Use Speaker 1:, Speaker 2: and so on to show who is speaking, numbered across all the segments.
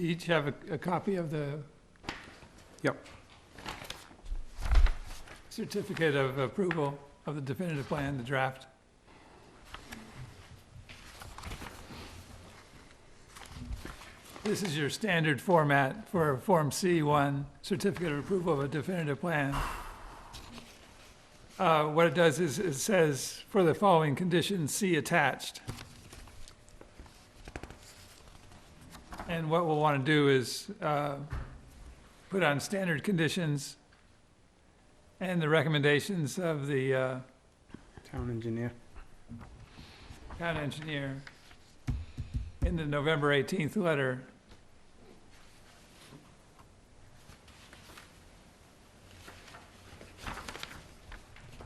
Speaker 1: each have a, a copy of the
Speaker 2: Yep.
Speaker 1: certificate of approval of the definitive plan, the draft. This is your standard format for Form C1, certificate of approval of a definitive plan. Uh, What it does is, it says, for the following conditions, see attached. And what we'll want to do is uh, put on standard conditions and the recommendations of the uh,
Speaker 2: Town engineer.
Speaker 1: town engineer in the November 18th letter.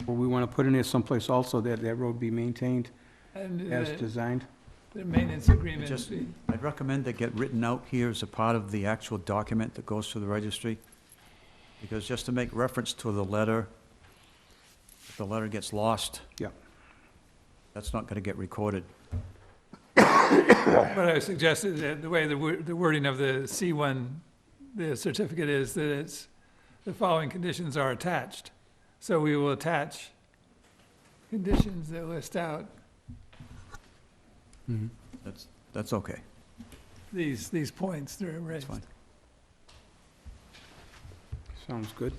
Speaker 2: Well, we want to put in there someplace also that that road be maintained
Speaker 1: And
Speaker 2: as
Speaker 1: the-
Speaker 2: designed.
Speaker 1: the maintenance agreement.
Speaker 3: Just-
Speaker 1: be-
Speaker 3: I'd recommend that get written out here as a part of the actual document that goes to the registry, because just to make reference to the letter, if the letter gets lost.
Speaker 2: Yeah.
Speaker 3: That's not gonna get recorded.
Speaker 1: What I suggested, that the way the wo- the wording of the C1, the certificate is that it's, the following conditions are attached. So we will attach conditions that list out
Speaker 3: That's, that's okay.
Speaker 1: these, these points that are
Speaker 3: That's
Speaker 1: raised.
Speaker 3: fine.
Speaker 2: Sounds good.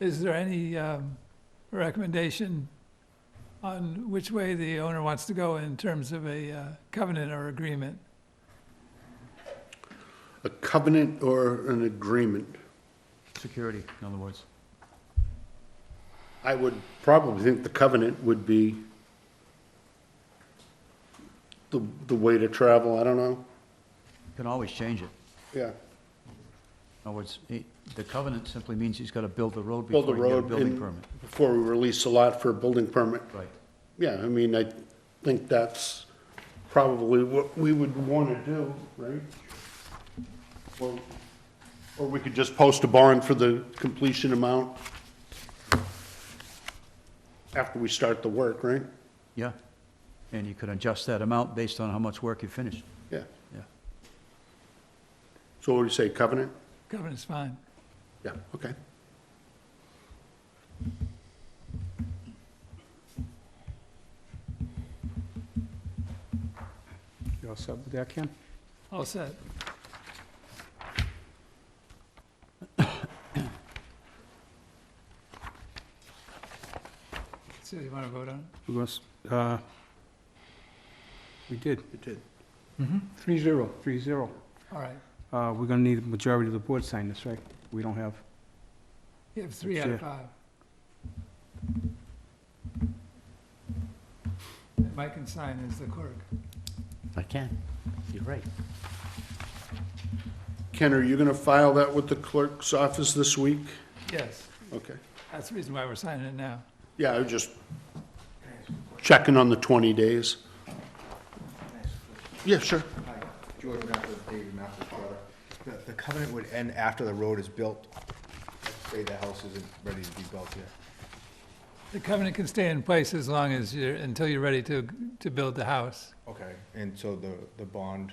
Speaker 1: Is there any um, recommendation on which way the owner wants to go in terms of a uh, covenant or agreement?
Speaker 4: A covenant or an agreement?
Speaker 3: Security, in other words.
Speaker 4: I would probably think the covenant would be the, the way to travel, I don't know.
Speaker 3: You Can always change it.
Speaker 4: Yeah,
Speaker 3: In other words, he- the covenant simply means he's gotta build the road
Speaker 4: build the
Speaker 3: before he get a
Speaker 4: road
Speaker 3: building
Speaker 4: in-
Speaker 3: permit.
Speaker 4: before we release a lot for a building permit.
Speaker 3: Right.
Speaker 4: Yeah, I mean, I think that's probably what we would want to do, right? Or, or we could just post a bond for the completion amount after we start the work, right?
Speaker 3: Yeah. And you could adjust that amount based on how much work you finish.
Speaker 4: Yeah.
Speaker 3: Yeah.
Speaker 4: So what do you say, covenant?
Speaker 1: Covenant's fine.
Speaker 4: Yeah, okay.
Speaker 2: You all set with that, Ken?
Speaker 1: All set. So you want to vote on it?
Speaker 2: We was- uh, We did.
Speaker 4: It did.
Speaker 2: Three zero, three zero.
Speaker 1: All right.
Speaker 2: Uh, We're going to need a majority of the board sign this, right? We don't have,
Speaker 1: You have three out of five. And Mike can sign as the clerk.
Speaker 5: I can. You're right.
Speaker 4: Ken, are you going to file that with the clerk's office this week?
Speaker 1: Yes,
Speaker 4: Okay.
Speaker 1: that's the reason why we're signing it now.
Speaker 4: Yeah, I was just checking on the 20 days. Yeah, sure.
Speaker 6: Hi, George Mathis, David Mathis, brother. The- The covenant would end after the road is built. Let's Say the house isn't ready to be built yet.
Speaker 1: The covenant can stay in place as long as you're, until you're ready to, to build the house.
Speaker 6: Okay. And so the, the bond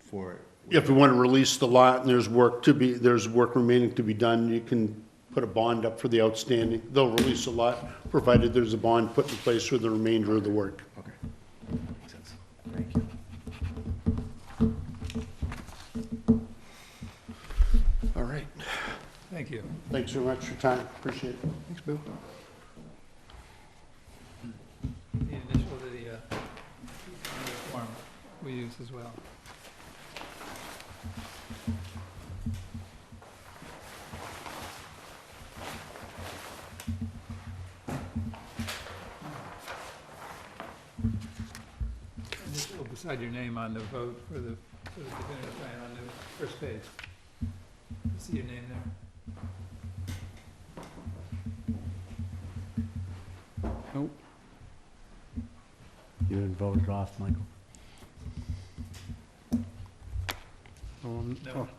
Speaker 6: for it
Speaker 4: If you want to release the lot and there's work to be, there's work remaining to be done, you can put a bond up for the outstanding. They'll release a lot, provided there's a bond put in place for the remainder of the work.
Speaker 6: Okay. Makes sense. Thank you.
Speaker 4: All right.
Speaker 1: Thank you.
Speaker 4: Thanks very much for your time. Appreciate it. Thanks, Bill.
Speaker 1: The initial to the, uh, form we use as well. And just a little beside your name on the vote for the, for the definitive plan on the first page. You See your name there?
Speaker 2: nope.
Speaker 5: You voted off, Michael.
Speaker 2: Um,
Speaker 1: No.
Speaker 2: oh,